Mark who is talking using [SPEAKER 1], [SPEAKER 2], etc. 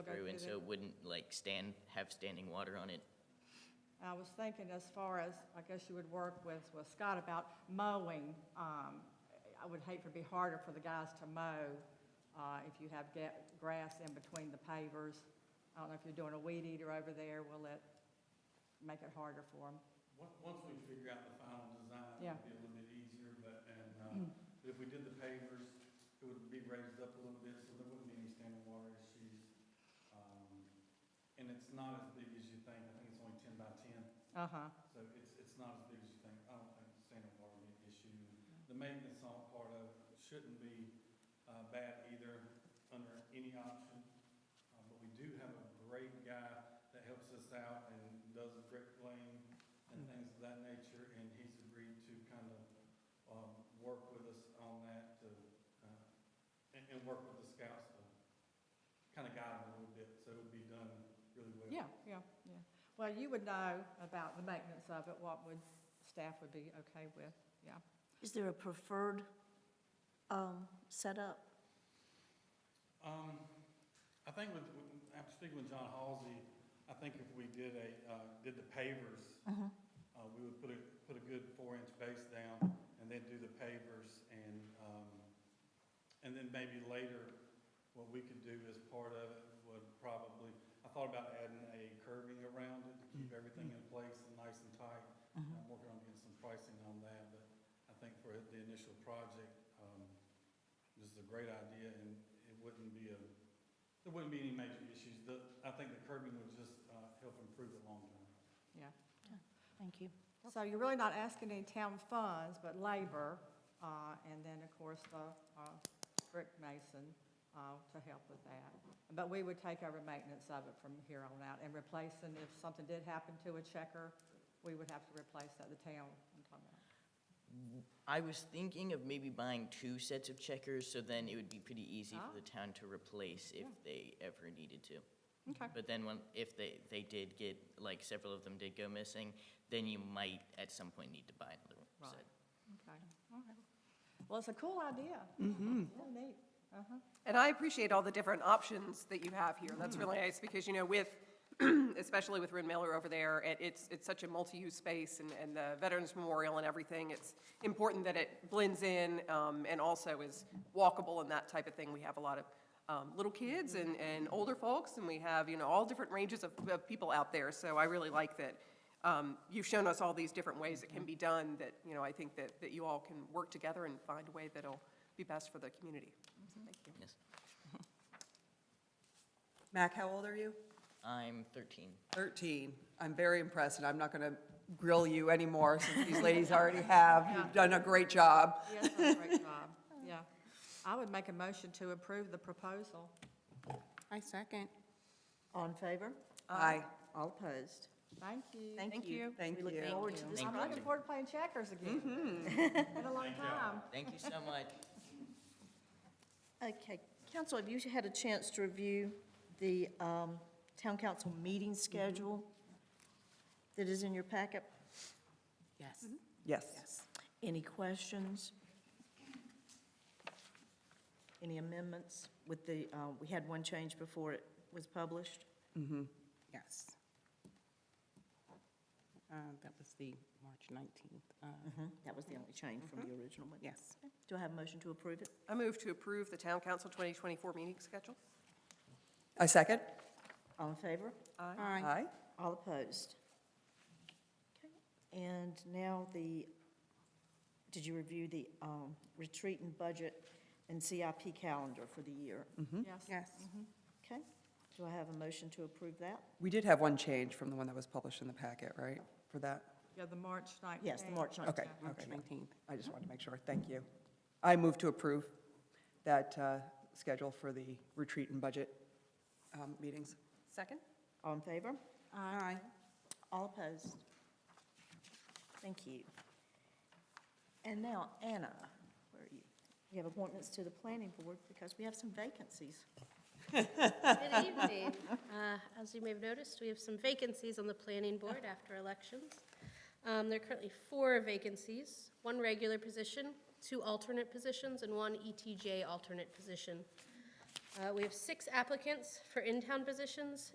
[SPEAKER 1] So it wouldn't like stand, have standing water on it?
[SPEAKER 2] I was thinking as far as, I guess you would work with, with Scott about mowing. Um, I would hate for it to be harder for the guys to mow, uh, if you have ga- grass in between the pavers. I don't know if you're doing a weed eater over there, will it make it harder for them?
[SPEAKER 3] Once, once we figure out the final design,
[SPEAKER 2] Yeah.
[SPEAKER 3] it'll be a little bit easier, but, and, uh, but if we did the pavers, it would be raised up a little bit, so there wouldn't be any standing water issues. Um, And it's not as big as you think, I think it's only ten by ten,
[SPEAKER 2] Uh-huh,
[SPEAKER 3] so it's, it's not as big as you think, I don't think standing water would be an issue. The maintenance on part of it shouldn't be, uh, bad either, under any option. Uh, but we do have a great guy that helps us out and does brick laying and things of that nature, and he's agreed to kind of, um, work with us on that to, uh, and, and work with the scouts to kind of guide them a little bit, so it'll be done really well.
[SPEAKER 2] yeah, yeah, yeah. Well, you would know about the maintenance of it, what would, staff would be okay with, yeah.
[SPEAKER 4] Is there a preferred um, setup?
[SPEAKER 3] Um, I think with, with- after speaking with John Halsey, I think if we did a, uh, did the pavers, uh, we would put a, put a good four-inch base down and then do the pavers and, um, and then maybe later, what we could do as part of it would probably, I thought about adding a curving around it to keep everything in place and nice and tight.
[SPEAKER 5] Mm-hmm.
[SPEAKER 3] I'm working on getting some pricing on that, but I think for the initial project, um, this is a great idea and it wouldn't be a, there wouldn't be any major issues. The, I think the curbing would just, uh, help improve it long term.
[SPEAKER 4] Thank you.
[SPEAKER 2] So you're really not asking any town funds, but labor, uh, and then, of course, the uh, brick mason uh, to help with that. But we would take over maintenance of it from here on out and replacing, if something did happen to a checker, we would have to replace that, the town. I'm talking about.
[SPEAKER 1] I was thinking of maybe buying two sets of checkers, so then it would be pretty easy
[SPEAKER 2] Ah.
[SPEAKER 1] for the town to replace if
[SPEAKER 2] Yeah.
[SPEAKER 1] they ever needed to.
[SPEAKER 2] Okay,
[SPEAKER 1] But then when, if they, they did get, like several of them did go missing, then you might at some point need to buy another
[SPEAKER 2] Right.
[SPEAKER 1] set.
[SPEAKER 2] okay, all right. Well, it's a cool idea. Real neat, uh-huh.
[SPEAKER 6] And I appreciate all the different options that you have here. That's really nice, because, you know, with, especially with Rin Miller over there, it- it's, it's such a multi-use space, and, and the Veterans Memorial and everything, it's important that it blends in, um, and also is walkable and that type of thing. We have a lot of um, little kids and, and older folks, and we have, you know, all different ranges of, of people out there, so I really like that um, you've shown us all these different ways it can be done, that, you know, I think that, that you all can work together and find a way that'll be best for the community. So Thank you.
[SPEAKER 1] Yes.
[SPEAKER 7] Mac, how old are you?
[SPEAKER 1] I'm 13.
[SPEAKER 7] 13. I'm very impressed, and I'm not going to grill you anymore since these ladies already have. You've done a great job.
[SPEAKER 2] Yes, that's a great job, yeah. I would make a motion to approve the proposal.
[SPEAKER 8] I second.
[SPEAKER 5] All in favor?
[SPEAKER 7] Aye.
[SPEAKER 5] All opposed?
[SPEAKER 2] Thank you.
[SPEAKER 5] Thank you.
[SPEAKER 7] Thank
[SPEAKER 5] We look
[SPEAKER 7] you. Mm-hmm.
[SPEAKER 5] forward to this
[SPEAKER 1] Thank
[SPEAKER 2] I'm
[SPEAKER 5] project.
[SPEAKER 2] looking forward to playing checkers again. Been a long time.
[SPEAKER 1] Thank you so much.
[SPEAKER 5] Okay, council, have you had a chance to review the um, town council meeting schedule that is in your packet? Mm-hmm.
[SPEAKER 8] Yes.
[SPEAKER 7] Yes.
[SPEAKER 5] Any questions? Any amendments with the, uh, we had one change before it was published?
[SPEAKER 8] Yes. Uh, That was the March 19th. uh,
[SPEAKER 5] That was the only change from the original one.
[SPEAKER 8] Yes.
[SPEAKER 5] Do I have a motion to approve it?
[SPEAKER 6] I move to approve the Town Council 2024 meeting schedule.
[SPEAKER 7] I second.
[SPEAKER 5] All in favor?
[SPEAKER 8] Aye.
[SPEAKER 7] Aye.
[SPEAKER 5] All opposed? Okay. And now the, did you review the um, retreat and budget and CIP calendar for the year?
[SPEAKER 7] Mm-hmm.
[SPEAKER 2] Yes.
[SPEAKER 8] Yes.
[SPEAKER 5] Okay, do I have a motion to approve that?
[SPEAKER 7] We did have one change from the one that was published in the packet, right, for that?
[SPEAKER 2] Yeah, the March 19th.
[SPEAKER 5] Yes, the March 19th.
[SPEAKER 7] Okay,
[SPEAKER 8] March
[SPEAKER 7] okay.
[SPEAKER 8] 19th.
[SPEAKER 7] I just wanted to make sure. Thank you. I move to approve that uh, schedule for the retreat and budget um, meetings.
[SPEAKER 6] Second?
[SPEAKER 5] All in favor?
[SPEAKER 8] Aye.
[SPEAKER 5] All opposed? Thank you. And now, Anna, where are you? You have appointments to the planning board because we have some vacancies.
[SPEAKER 9] Good evening. Uh, As you may have noticed, we have some vacancies on the planning board after elections. Um, There are currently four vacancies, one E regular position, two alternate positions, and one ETJ alternate position. Uh, We have six applicants for in-town positions,